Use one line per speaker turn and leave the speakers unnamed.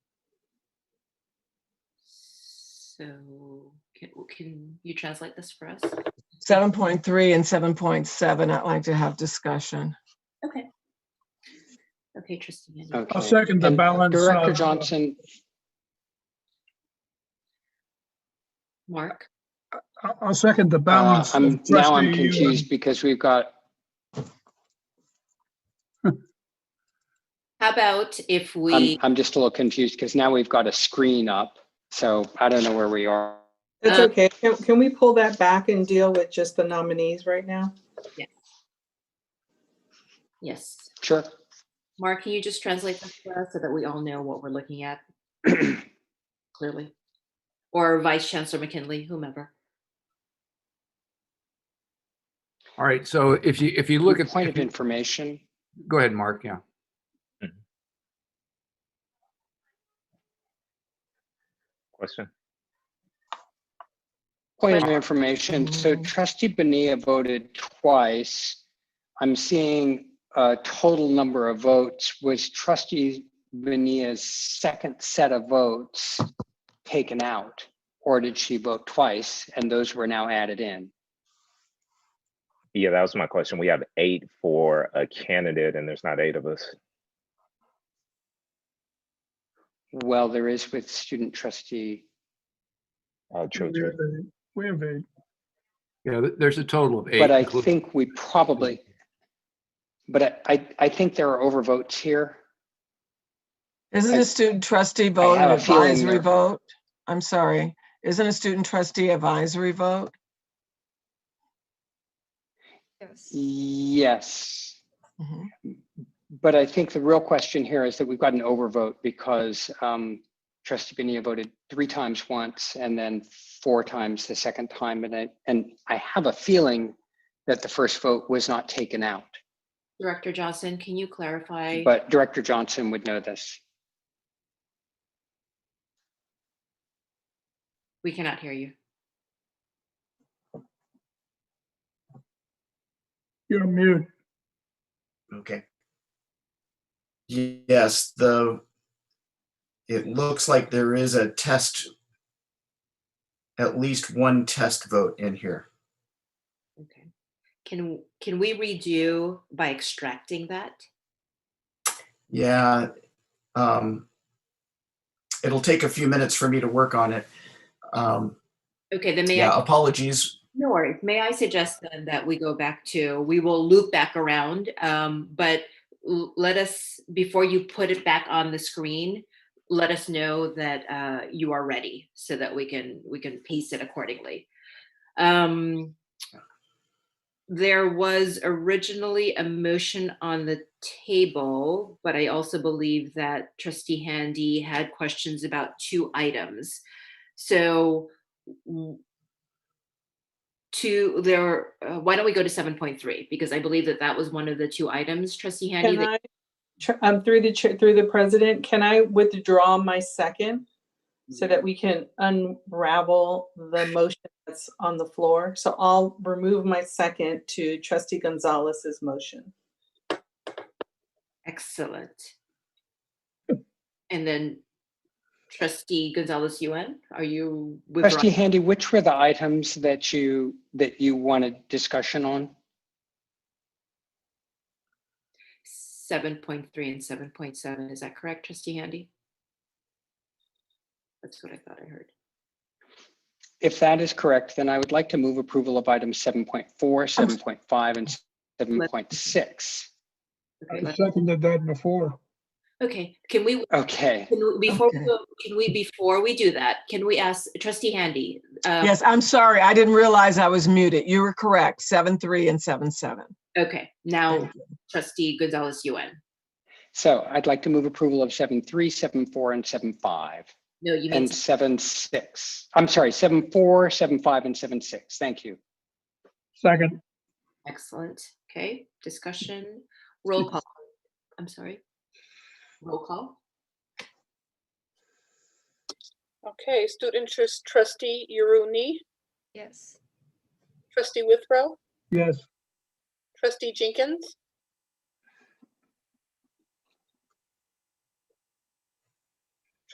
So can, can you translate this for us?
7.3 and 7.7, I'd like to have discussion.
Okay. Okay, Tristan. and-
Okay.
I'll second the
And
balance,
Director
uh,
Johnson,
Mark,
I'll, I'll second the
uh,
balance.
I'm,
of
now I'm
trustee, uh,
confused because we've got,
how about if
I'm,
we,
I'm just a little confused because now we've got a screen up. So I don't know where we are.
That's
Um,
okay. Can, can we pull that back and deal with just the nominees right now?
yes.
Sure.
Mark, can you just translate this for us so that we all know what we're looking at clearly? Or Vice Chancellor McKinley, whomever.
All right, so if you, if you look at,
Point of information.
go ahead, Mark, yeah.
Question?
Point of information, so
Mm.
Mhm.
trustee Benia voted twice. I'm seeing a total number of votes. Was trustee Benia's second set of votes taken out? Or did she vote twice and those were now added in?
Yeah, that was my question. We have eight for a candidate and there's not eight of us.
Well, there is with student trustee.
Oh, true,
we have
true.
a- We have a,
Yeah, th- there's a total of eight.
But I
including-
think we probably, but I- I, I think there are overvotes here.
Isn't
I-
a student trustee vote an
have a feeling
advisory
there-
vote? I'm sorry, isn't a student trustee advisory vote?
Yes.
Mhm.
But I think the real question here is that we've got an overvote because um, trustee Benia voted three times once and then four times the second time. And I, and I have a feeling that the first vote was not taken out.
Director Johnson, can you clarify?
But Director Johnson would know this.
We cannot hear you.
you're mute.
Okay. Ye- Yes, the, it looks like there is a test, at least one test vote in here.
Okay. Can, can we redo by extracting that?
Yeah. um, It'll take a few minutes for me to work on it. Um,
Okay, then may I?
Yeah, apologies.
No worries. May I suggest then that we go back to, we will loop back around, um, but l- let us, before you put it back on the screen, let us know that uh, you are ready so that we can, we can pace it accordingly. Um, There was originally a motion on the table, but I also believe that trustee Handy had questions about two items. So w- to there, uh, why don't we go to seven point three? Because I believe that that was one of the two items, trustee Handy.
Can
that-
I, tr- um, through the, chair- through the president, can I withdraw my second? So that we can unravel the motion that's on the floor. So I'll remove my second to trustee Gonzalez's motion.
Excellent. And then trustee Gonzalez UN, are you
Trustee
withdrawing?
Handy, which were the items that you, that you wanted discussion on?
Seven point three and seven point seven, is that correct, trustee Handy? That's what I thought I heard.
If that is correct, then I would like to move approval of items 7.4, 7.5, and 7.6.
Okay,
I
let's-
seconded that before.
Okay, can we,
Okay.
can we, before, we
Okay.
go- can we, before we do that, can we ask trustee Handy? uh,
Yes, I'm sorry, I didn't realize I was muted. You were correct, 7.3 and 7.7.
Okay, now
Thank
trustee Gonzalez UN.
So I'd like to move approval of seven three, seven four, and seven five,
No, you mean,
and seven six. I'm sorry, seven four, seven five, and seven six. Thank you.
Second,
excellent. Okay, discussion, roll call. I'm sorry. Roll call.
Okay, student interest trustee Yuruni,
Yes.
trustee Withrow,
yes,
trustee Jenkins,